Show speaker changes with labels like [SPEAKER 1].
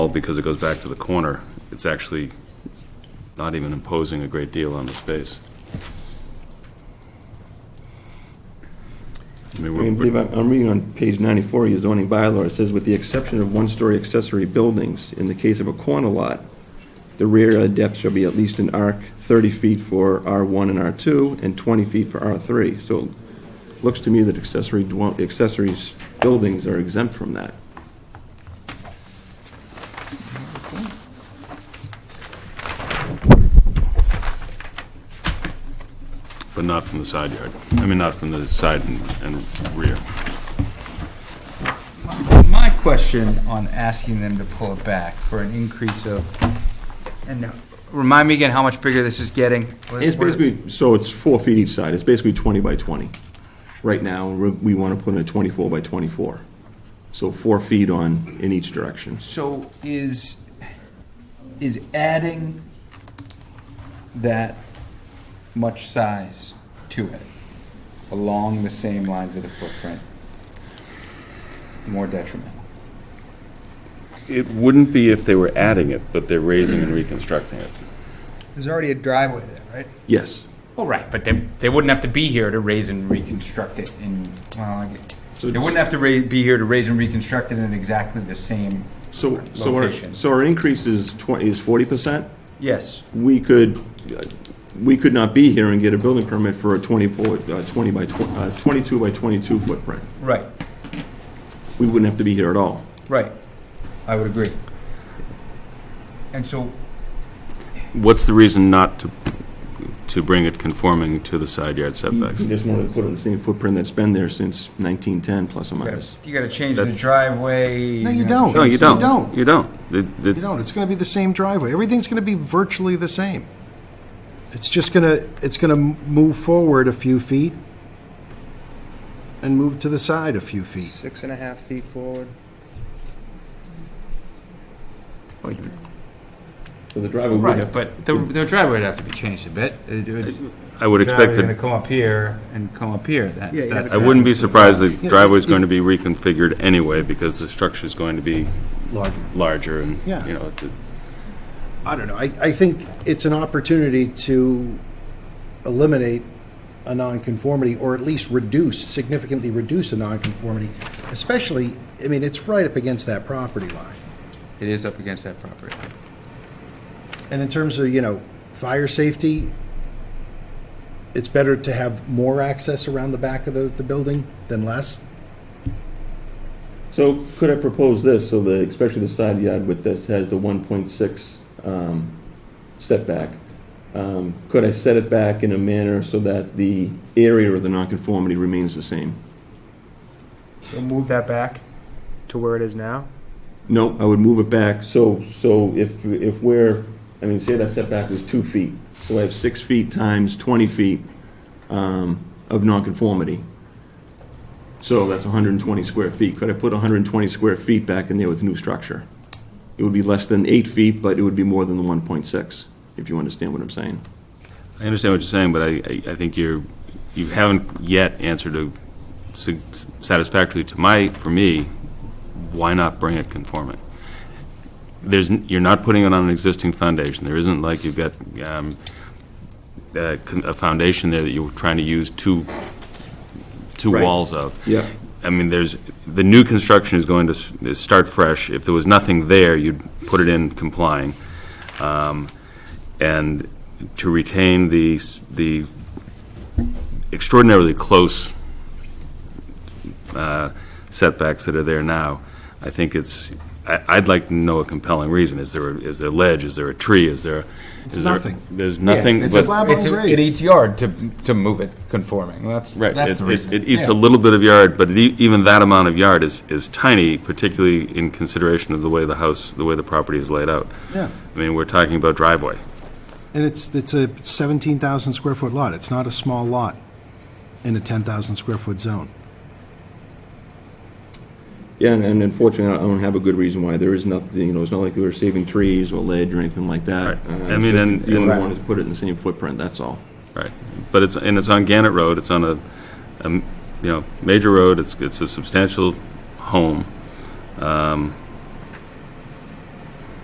[SPEAKER 1] all because it goes back to the corner, it's actually not even imposing a great deal on the space. I mean,
[SPEAKER 2] I mean,
[SPEAKER 1] we're-
[SPEAKER 2] believe I'm I'm reading on page 94 of your zoning bylaw, it says, "With the exception of one-story accessory buildings, in the case of a corner lot, the rear yard depth shall be at least an arc 30 feet for R1 and R2 and 20 feet for R3." So it looks to me that accessory, dwell- accessories, buildings are exempt from that.
[SPEAKER 1] but not from the side yard, I mean, not from the side and- and rear.
[SPEAKER 3] My question on asking them to pull it back for an increase of, and remind me again how much bigger this is getting? What-
[SPEAKER 2] It's
[SPEAKER 3] what-
[SPEAKER 2] basically, so it's four feet each side, it's basically 20 by 20. Right now, we're- we want to put in a 24 by 24. So four feet on, in each direction.
[SPEAKER 3] So is, is adding that much size to it along the same lines of the footprint more detrimental?
[SPEAKER 1] It wouldn't be if they were adding it, but they're raising and reconstructing it.
[SPEAKER 4] There's already a driveway there, right?
[SPEAKER 2] Yes.
[SPEAKER 3] Well, Oh, right, but they, they wouldn't have to be here to raise and reconstruct it in, well, I get-
[SPEAKER 2] So
[SPEAKER 3] they wouldn't have to ra- be here to raise and reconstruct it in exactly the same.
[SPEAKER 2] So, so our,
[SPEAKER 3] Location.
[SPEAKER 2] so our increase is twenty, is forty percent?
[SPEAKER 3] Yes.
[SPEAKER 2] We could, uh, we could not be here and get a building permit for a twenty-four, uh, twenty by tw- uh, twenty-two by twenty-two footprint.
[SPEAKER 3] Right,
[SPEAKER 2] We wouldn't have to be here at all.
[SPEAKER 3] right. I would agree. And so,
[SPEAKER 1] What's the reason not to, to bring it conforming to the side yard setbacks?
[SPEAKER 2] We just wanted to put it in the same footprint that's been there since nineteen-ten, plus or
[SPEAKER 3] you gotta-
[SPEAKER 2] minus.
[SPEAKER 3] you gotta change the driveway.
[SPEAKER 5] No, you
[SPEAKER 3] gotta
[SPEAKER 5] don't.
[SPEAKER 1] No, you don't.
[SPEAKER 5] You don't.
[SPEAKER 1] You don't. The- the-
[SPEAKER 5] You don't, it's going to be the same driveway. Everything's going to be virtually the same. It's just going to, it's going to move forward a few feet and move to the side a few feet.
[SPEAKER 4] Six and a half feet forward.
[SPEAKER 2] So the driveway would
[SPEAKER 3] Right,
[SPEAKER 2] have,
[SPEAKER 3] but the, the driveway would have to be changed a bit. It- it would-
[SPEAKER 1] I would expect
[SPEAKER 3] Driveway's gonna
[SPEAKER 1] that,
[SPEAKER 3] come up here and come up here. That,
[SPEAKER 4] Yeah, you
[SPEAKER 3] that's.
[SPEAKER 1] I wouldn't be surprised the
[SPEAKER 5] Yeah,
[SPEAKER 1] driveway's
[SPEAKER 5] if-
[SPEAKER 1] going to be reconfigured anyway, because the structure's going to be
[SPEAKER 5] Larger.
[SPEAKER 1] larger and,
[SPEAKER 5] Yeah.
[SPEAKER 1] you know, it-
[SPEAKER 5] I don't know. I, I think it's an opportunity to eliminate a nonconformity or at least reduce, significantly reduce a nonconformity, especially, I mean, it's right up against that property line.
[SPEAKER 3] It is up against that property.
[SPEAKER 5] And in terms of, you know, fire safety, it's better to have more access around the back of the, the building than less.
[SPEAKER 2] so could I propose this, so the, especially the side yard with this has the one point six, um, setback. Um, could I set it back in a manner so that the area of the nonconformity remains the same?
[SPEAKER 4] So move that back to where it is now.
[SPEAKER 2] No, I would move it back, so, so if, if we're, I mean, say that setback is two feet, so I have six feet times 20 feet um, of nonconformity. So that's 120 square feet. Could I put 120 square feet back in there with new structure? It would be less than eight feet, but it would be more than the 1.6, if you understand what I'm saying.
[SPEAKER 1] I understand what you're saying, but I, I- I think you're, you haven't yet answered a sig- satisfactorily to my, for me, why not bring it conforming? There's, n- you're not putting it on an existing foundation, there isn't like you've got, um, a, con- a foundation there that you were trying to use two, two
[SPEAKER 2] Right.
[SPEAKER 1] walls of.
[SPEAKER 2] Yeah.
[SPEAKER 1] I mean, there's, the new construction is going to s- is start fresh. If there was nothing there, you'd put it in complying. Um, And to retain the, s- the extraordinarily close uh, setbacks that are there now, I think it's, I- I'd like to know a compelling reason. Is there, a- is there ledge? Is there a tree? Is there? is there-
[SPEAKER 5] nothing.
[SPEAKER 1] There's nothing.
[SPEAKER 5] it's
[SPEAKER 1] but-
[SPEAKER 5] a slab on
[SPEAKER 3] It's a-
[SPEAKER 5] grade.
[SPEAKER 3] It eats yard to, to move it conforming. That's,
[SPEAKER 1] Right.
[SPEAKER 3] that's
[SPEAKER 1] it-
[SPEAKER 3] the
[SPEAKER 1] it-
[SPEAKER 3] reason.
[SPEAKER 1] It eats a
[SPEAKER 3] Yeah.
[SPEAKER 1] little bit of yard, but it e- even that amount of yard is, is tiny, particularly in consideration of the way the house, the way the property is laid out.
[SPEAKER 5] Yeah.
[SPEAKER 1] I mean, we're talking about driveway.
[SPEAKER 5] And it's, it's a 17,000 square foot lot. It's not a small lot in a 10,000 square foot zone.
[SPEAKER 2] Yeah, and- and unfortunately, I don't have a good reason why. There is nothing, you know, it's not like we were saving trees or ledge or anything like that.
[SPEAKER 1] Right.
[SPEAKER 2] Uh,
[SPEAKER 1] I mean,
[SPEAKER 2] so
[SPEAKER 1] and-
[SPEAKER 2] The only
[SPEAKER 1] and-
[SPEAKER 2] one is to put it in the same footprint, that's all.
[SPEAKER 1] Right. But it's, and it's on Gannett Road, it's on a, a m- you know, major road, it's, it's a substantial home. Um,